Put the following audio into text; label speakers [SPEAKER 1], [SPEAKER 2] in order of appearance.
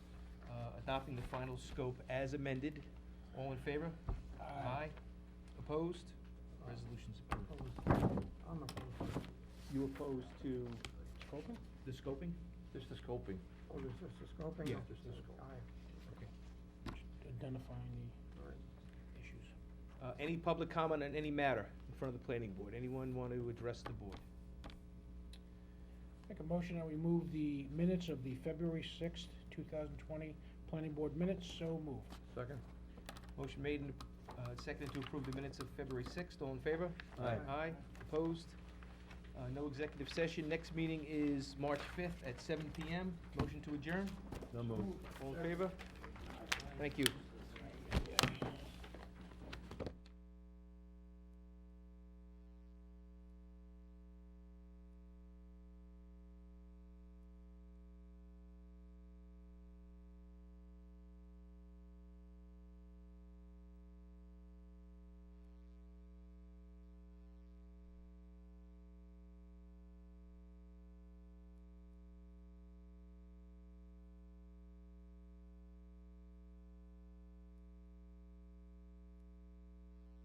[SPEAKER 1] Uh, adopting the final scope as amended. All in favor? Aye. Opposed? Resolution's approved.
[SPEAKER 2] I'm oh, opposed.
[SPEAKER 3] You opposed to Copeland?
[SPEAKER 1] The scoping?
[SPEAKER 4] Just the scoping.
[SPEAKER 2] Oh, there's just a scoping?
[SPEAKER 1] Yeah, just the scope.
[SPEAKER 2] Aye.
[SPEAKER 1] Okay.
[SPEAKER 3] Identifying
[SPEAKER 2] All right.
[SPEAKER 3] the issues.
[SPEAKER 1] Uh, any public comment on any matter in front of the planning board? Anyone want to address the board?
[SPEAKER 3] Make a motion that we move the minutes of the February sixth, two thousand twenty, planning board minutes, so moved.
[SPEAKER 4] Second?
[SPEAKER 1] Motion made and, uh, seconded to approve the minutes of February sixth. All in favor?
[SPEAKER 4] Aye.
[SPEAKER 1] Aye. Opposed? Uh, no executive session. Next meeting is March fifth at seven PM. Motion to adjourn?
[SPEAKER 4] No move.
[SPEAKER 1] All in favor? Thank you.